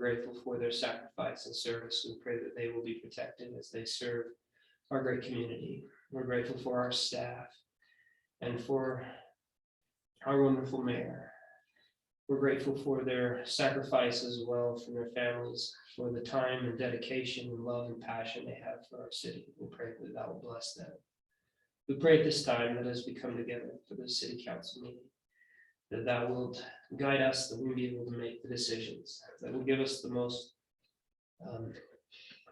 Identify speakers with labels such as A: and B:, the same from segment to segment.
A: grateful for their sacrifice and service and pray that they will be protected as they serve our great community. We're grateful for our staff and for our wonderful mayor. We're grateful for their sacrifice as well from their families, for the time and dedication and love and passion they have for our city. We pray that that will bless them. We pray at this time that as we come together for the city council meeting, that that will guide us, that we'll be able to make the decisions, that will give us the most um,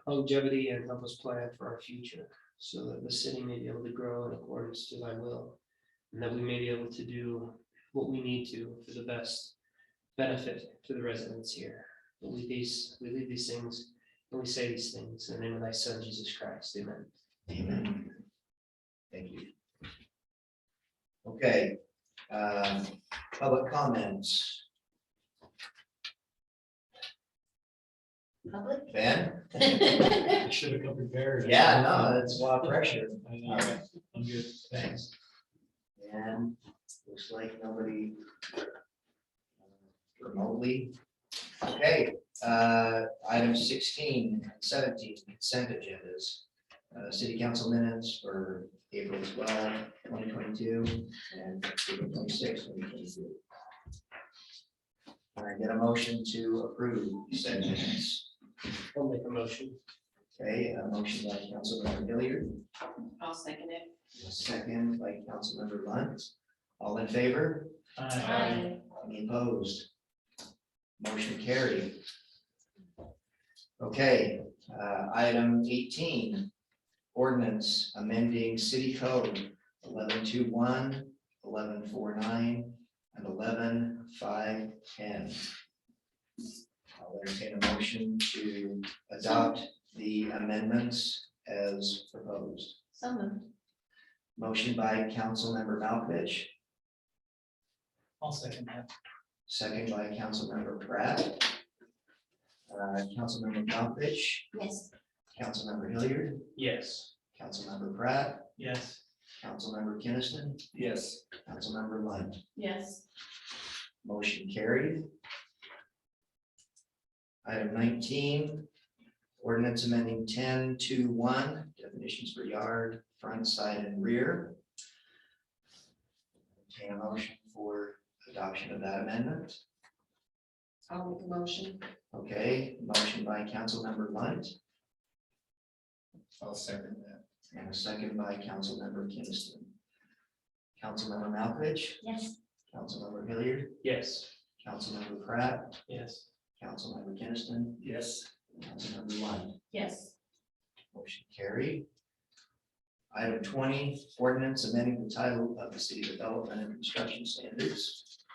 A: longevity and help us plan for our future, so that the city may be able to grow in accordance to thy will. And that we may be able to do what we need to for the best benefit to the residents here. We leave these, we leave these things, and we say these things in the name of thy son, Jesus Christ, amen.
B: Amen. Thank you. Okay, um, public comments.
C: Public?
B: Ben?
D: I should have come prepared.
B: Yeah, no, that's a lot of pressure.
D: I
B: All
D: know.
B: right,
D: I'm good,
B: thanks.
D: thanks.
B: And looks like nobody uh, remotely. Okay, uh, item 16 and 17 consent agendas. Uh, city council minutes for April 12, 2022, and April 26, 2022. Can I get a motion to approve said minutes.
A: I'll make a motion.
B: Okay, a motion by Councilmember Hilliard.
C: I'll second it.
B: A Second by Councilmember Lunt. All in favor? Any opposed? Motion carried. Okay, uh, item eighteen, ordinance amending city code eleven two one, eleven four nine, and eleven five ten. I'll entertain a motion to adopt the amendments as proposed.
C: So moved.
B: Motion by Councilmember Malkovich,
D: I'll second that.
B: second by Councilmember Pratt. Uh, Councilmember Malkovich,
C: Yes.
B: Councilmember Hilliard,
A: Yes.
B: Councilmember Pratt,
D: Yes.
B: Councilmember Kinnison,
A: Yes.
B: Councilmember Lund.
C: Yes.
B: Motion carried. Item nineteen, ordinance amending ten to one, definitions for yard, front, side, and rear. Entertain a motion for adoption of that amendment.
C: I'll make a motion.
B: Okay, motion by Councilmember Lunt. I'll second that. And a second by Councilmember Kinnison. Councilmember Malkovich,
C: Yes.
B: Councilmember Hilliard,
A: Yes.
B: Councilmember Pratt,
A: Yes.
B: Councilmember Kinnison,
A: Yes.
B: Councilmember Lund.
C: Yes.
B: Motion carried. Item twenty, ordinance amending the title of the city development and construction standards.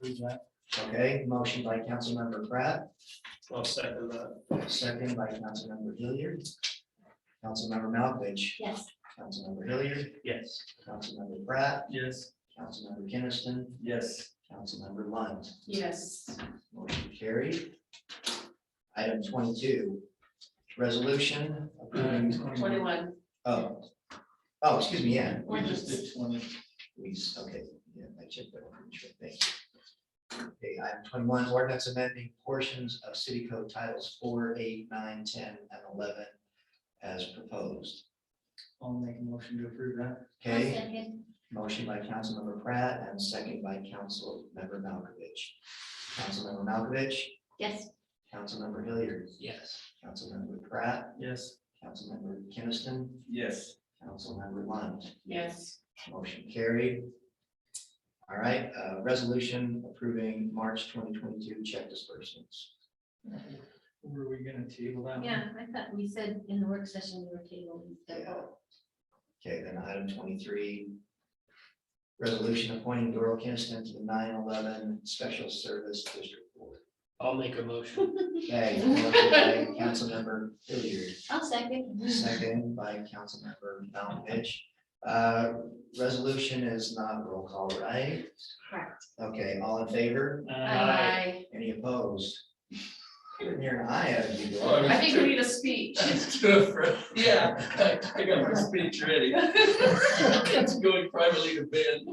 D: Who's that?
B: Okay, motion by Councilmember Pratt,
A: I'll second that.
B: second by Councilmember Hilliard. Councilmember Malkovich,
C: Yes.
B: Councilmember Hilliard,
A: Yes.
B: Councilmember Pratt,
A: Yes.
B: Councilmember Kinnison,
A: Yes.
B: Councilmember Lund.
C: Yes.
B: Motion carried. Item twenty-two, resolution approving,
C: Twenty-one.
B: oh, oh, excuse me, yeah,
D: We just did twenty.
B: we, s- okay, yeah, I checked that one, sure, thank you. Okay, item twenty-one, ordinance amending portions of city code titles four, eight, nine, ten, and eleven as proposed.
D: I'll make a motion to approve that.
B: Okay?
C: second.
B: Motion by Councilmember Pratt and second by Councilmember Malkovich. Councilmember Malkovich,
C: Yes.
B: Councilmember Hilliard,
A: Yes.
B: Councilmember Pratt,
D: Yes.
B: Councilmember Kinnison,
D: Yes.
B: Councilmember Lund.
C: Yes.
B: Motion carried. All right, uh, resolution approving March twenty twenty-two check disbursements.
D: Were we gonna table that? one?
C: Yeah, I thought we said in the work session we were tabling. the
B: Yeah.
C: vote.
B: Okay, then item twenty-three. Resolution appointing Doral Kinnison to the nine eleven Special Service District Board.
A: I'll make a motion.
B: Okay, motion by Councilmember Hilliard.
C: I'll second.
B: Second by Councilmember Malkovich. Uh, Resolution is not roll call, right?
C: Correct.
B: Okay, all in favor?
D: Uh,
C: I
B: Any opposed? Couldn't hear an aye out of you.
D: Oh,
B: Doral.
D: yeah.
C: think we need a speech.
D: Yeah, I got my speech ready. It's going privately to Ben.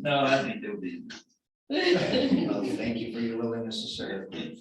D: No, I think they'll be,
B: Well, thank you for your willingness to serve.